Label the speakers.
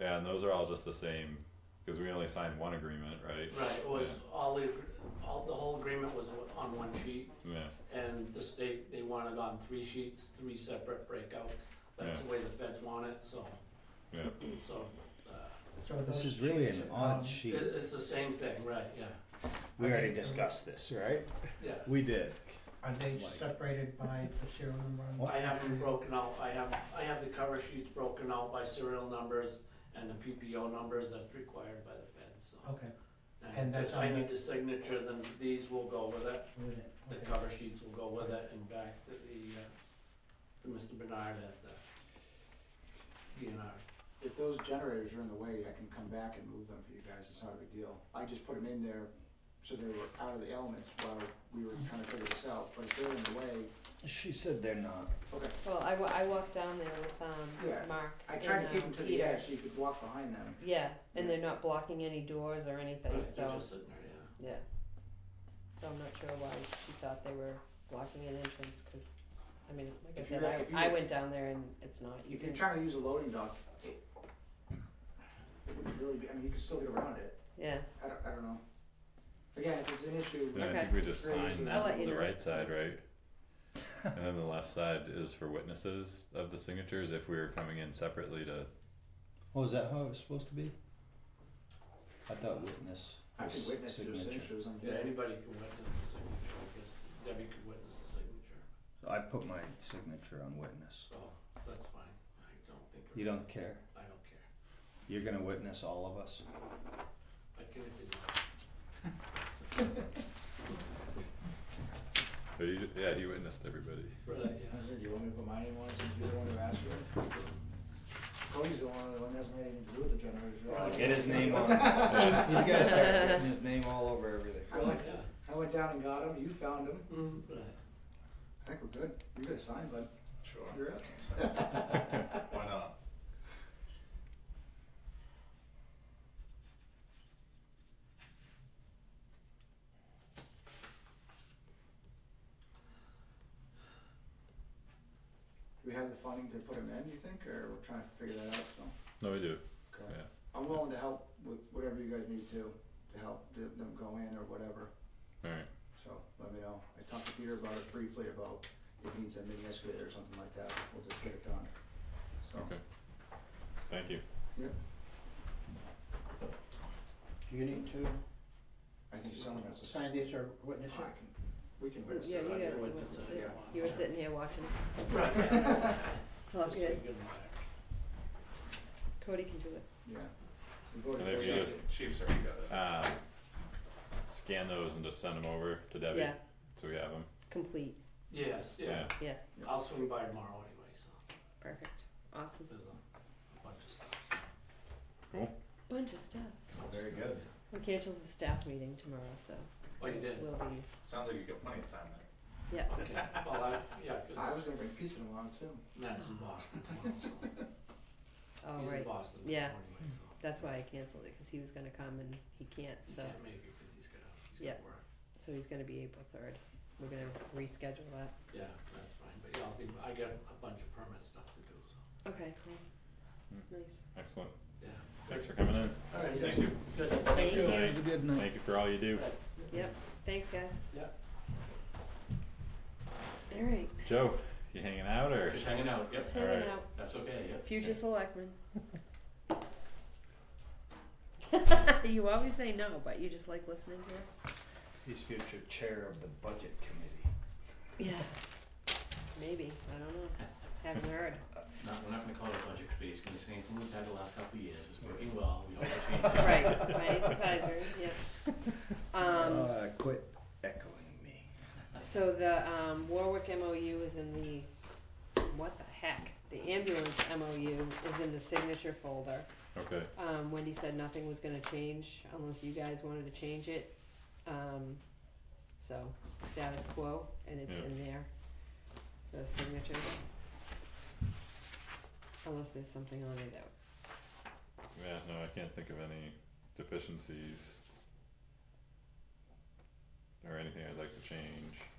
Speaker 1: Yeah, and those are all just the same because we only signed one agreement, right?
Speaker 2: Right, it was all the, all, the whole agreement was on one sheet,
Speaker 1: Yeah.
Speaker 2: and the state, they wanted on three sheets, three separate breakouts. That's
Speaker 1: Yeah.
Speaker 2: the way the feds want it, so,
Speaker 1: Yeah.
Speaker 2: so, uh,
Speaker 3: So
Speaker 4: This
Speaker 3: those um,
Speaker 4: is really
Speaker 3: sheets
Speaker 4: an
Speaker 3: are
Speaker 4: odd
Speaker 3: gone.
Speaker 2: it,
Speaker 4: sheet.
Speaker 2: it's the same thing, right, yeah,
Speaker 4: We
Speaker 3: I
Speaker 4: already
Speaker 3: think-
Speaker 4: discussed this, right?
Speaker 2: yeah.
Speaker 4: We did.
Speaker 3: Are they
Speaker 4: Like-
Speaker 3: separated by the serial number? on
Speaker 4: Well,
Speaker 3: the-
Speaker 2: I have them broken out, I have, I have the cover sheets broken out by serial numbers and the PPO numbers that's required by the feds, so.
Speaker 3: Okay,
Speaker 2: And
Speaker 3: And that's
Speaker 2: just, I
Speaker 3: on
Speaker 2: need
Speaker 3: the-
Speaker 2: the signature, then these will go with it,
Speaker 3: with it,
Speaker 2: the
Speaker 3: okay.
Speaker 2: cover sheets will go with it, and back to the, uh, to Mr. Bernard at the DNR.
Speaker 5: If those generators are in the way, I can come back and move them for you guys, it's not a big deal. I just put them in there so they were out of the elements while we were trying to figure this out, but if they're in the way,
Speaker 4: She said they're not.
Speaker 5: okay.
Speaker 6: Well, I, wa- I walked down there with um,
Speaker 5: Yeah,
Speaker 6: Mark.
Speaker 5: I tried to
Speaker 6: and,
Speaker 5: keep
Speaker 6: um,
Speaker 5: them to the
Speaker 6: Peter.
Speaker 5: edge so you could walk behind them.
Speaker 6: Yeah, and they're not blocking any doors or anything,
Speaker 2: Right,
Speaker 6: so
Speaker 2: They're just sitting there, yeah.
Speaker 6: yeah. So I'm not sure why she thought they were blocking an entrance, because I mean, like I
Speaker 5: If
Speaker 6: said,
Speaker 5: you're- if
Speaker 6: I, I
Speaker 5: you're-
Speaker 6: went down there and it's not. You
Speaker 5: If you're
Speaker 6: can,
Speaker 5: trying to use a loading dock, it it would really be, I mean, you could still get around it,
Speaker 6: yeah.
Speaker 5: I don't, I don't know. Again, if it's an issue,
Speaker 1: And I
Speaker 6: Okay.
Speaker 1: think we just
Speaker 5: Great.
Speaker 1: signed
Speaker 6: I'll
Speaker 1: that
Speaker 6: let
Speaker 1: on
Speaker 6: you
Speaker 1: the
Speaker 6: know.
Speaker 1: right side, right? and then the left side is for witnesses of the signatures if we were coming in separately to
Speaker 4: Oh, is that how it was supposed to be? I thought witness.
Speaker 5: I can
Speaker 4: was
Speaker 5: witness those signatures on
Speaker 2: Yeah,
Speaker 5: here.
Speaker 2: anybody can witness the signature, I guess, Debbie could witness the signature,
Speaker 4: So I put my signature on witness.
Speaker 2: so that's fine, I don't think. it-
Speaker 4: You don't care.
Speaker 2: I don't care,
Speaker 4: You're gonna witness all of us.
Speaker 2: I can if you
Speaker 1: But he, yeah, he witnessed everybody.
Speaker 2: want. Right, yeah.
Speaker 5: I said, you want me to put mine in one since you're the one who asked for it? Cody's Oh, the one, the one that hasn't had anything to do with the generators.
Speaker 2: Right.
Speaker 4: Get his name on. it. He's gonna start getting his name all over everything.
Speaker 5: I went,
Speaker 2: Yeah.
Speaker 5: I went down and got him, you found him.
Speaker 2: Mm, right.
Speaker 5: I think we're good. You got a sign, bud.
Speaker 7: Sure.
Speaker 5: You're up.
Speaker 7: Why not?
Speaker 5: Do we have the funding to put him in, you think, or we're trying to figure that out still?
Speaker 1: No, we do.
Speaker 5: Okay.
Speaker 1: Yeah.
Speaker 5: I'm willing to help with whatever you guys need to, to help th- them go in or whatever,
Speaker 1: All right.
Speaker 5: so let me know. I talked to Peter about it briefly about if he needs a mini excavator or something like that, we'll just get it done. So,
Speaker 1: Okay. Thank you.
Speaker 5: yep,
Speaker 3: Do you need to
Speaker 5: I think someone has to sign.
Speaker 3: sign these or witness
Speaker 5: I
Speaker 3: it?
Speaker 5: can, we can witness
Speaker 6: Yeah,
Speaker 5: it.
Speaker 6: you
Speaker 5: I
Speaker 6: guys
Speaker 5: can
Speaker 6: can
Speaker 5: witness
Speaker 6: witness
Speaker 5: it,
Speaker 6: it.
Speaker 5: yeah.
Speaker 6: You were sitting here watching.
Speaker 2: Right, yeah.
Speaker 6: It's all
Speaker 2: Just so you
Speaker 6: good.
Speaker 2: get 'em back.
Speaker 6: Cody can do it.
Speaker 5: Yeah. We voted
Speaker 1: And if
Speaker 5: for
Speaker 1: you
Speaker 5: it.
Speaker 1: just
Speaker 7: Chiefs already got it.
Speaker 1: uh, scan those and just send them over to Debbie
Speaker 6: Yeah,
Speaker 1: so we have them.
Speaker 6: complete.
Speaker 2: Yes, yeah,
Speaker 6: Yeah,
Speaker 2: I'll swing by tomorrow anyway, so
Speaker 6: perfect. Awesome.
Speaker 2: there's a bunch of stuff.
Speaker 6: Bunch of stuff.
Speaker 4: Very good.
Speaker 6: We canceled the staff meeting tomorrow, so
Speaker 2: Oh, you did?
Speaker 6: we'll be.
Speaker 7: Sounds like you got plenty of time there.
Speaker 6: Yeah.
Speaker 2: Okay, well, I, yeah,
Speaker 5: I was
Speaker 2: cause
Speaker 5: gonna bring pizza along too.
Speaker 2: Matt's in Boston tomorrow, so
Speaker 6: Oh,
Speaker 2: he's in
Speaker 6: right.
Speaker 2: Boston tomorrow
Speaker 6: Yeah.
Speaker 2: anyway, so.
Speaker 6: That's why I canceled it because he was going to come and he can't.
Speaker 2: He
Speaker 6: So
Speaker 2: can't make it, cause he's gonna, he's gonna
Speaker 6: Yeah.
Speaker 2: work,
Speaker 6: so he's going to be April third. We're going to reschedule that.
Speaker 2: yeah, that's fine, but yeah, I'll be, I got a bunch of permit stuff to do, so,
Speaker 6: Okay. Cool.
Speaker 1: Hmm.
Speaker 6: Nice.
Speaker 1: Excellent.
Speaker 2: yeah.
Speaker 1: Thanks for coming in.
Speaker 2: Alright,
Speaker 1: Thank
Speaker 2: yes,
Speaker 1: you.
Speaker 2: good,
Speaker 6: Thank you.
Speaker 1: Thank
Speaker 4: Have a good night.
Speaker 1: Thank you for all you do.
Speaker 2: Right.
Speaker 6: Yep. Thanks, guys.
Speaker 2: Yeah.
Speaker 6: All right.
Speaker 1: Joe, you hanging out or?
Speaker 8: Just hanging out, yep,
Speaker 6: Just
Speaker 1: All
Speaker 6: hanging
Speaker 1: right.
Speaker 6: out.
Speaker 8: that's okay, yep.
Speaker 6: Future selectman. you always say no, but you just like listening to us.
Speaker 4: He's future chair of the budget committee.
Speaker 6: Yeah. Maybe. I don't know. Haven't heard.
Speaker 8: Not, we're not gonna call it a budget committee, it's gonna be saying, we've had the last couple of years, it's working well, we don't wanna change it.
Speaker 6: Right. My supervisor. Yeah. Um.
Speaker 4: uh, quit echoing me.
Speaker 6: So the um, Warwick MOU is in the, what the heck? The ambulance MOU is in the signature folder.
Speaker 1: Okay.
Speaker 6: Um, Wendy said nothing was gonna change unless you guys wanted to change it. Um, so status quo, and it's
Speaker 1: Yeah.
Speaker 6: in there, those signatures. Unless there's something on it that,
Speaker 1: Yeah, no, I can't think of any deficiencies or anything I'd like to change.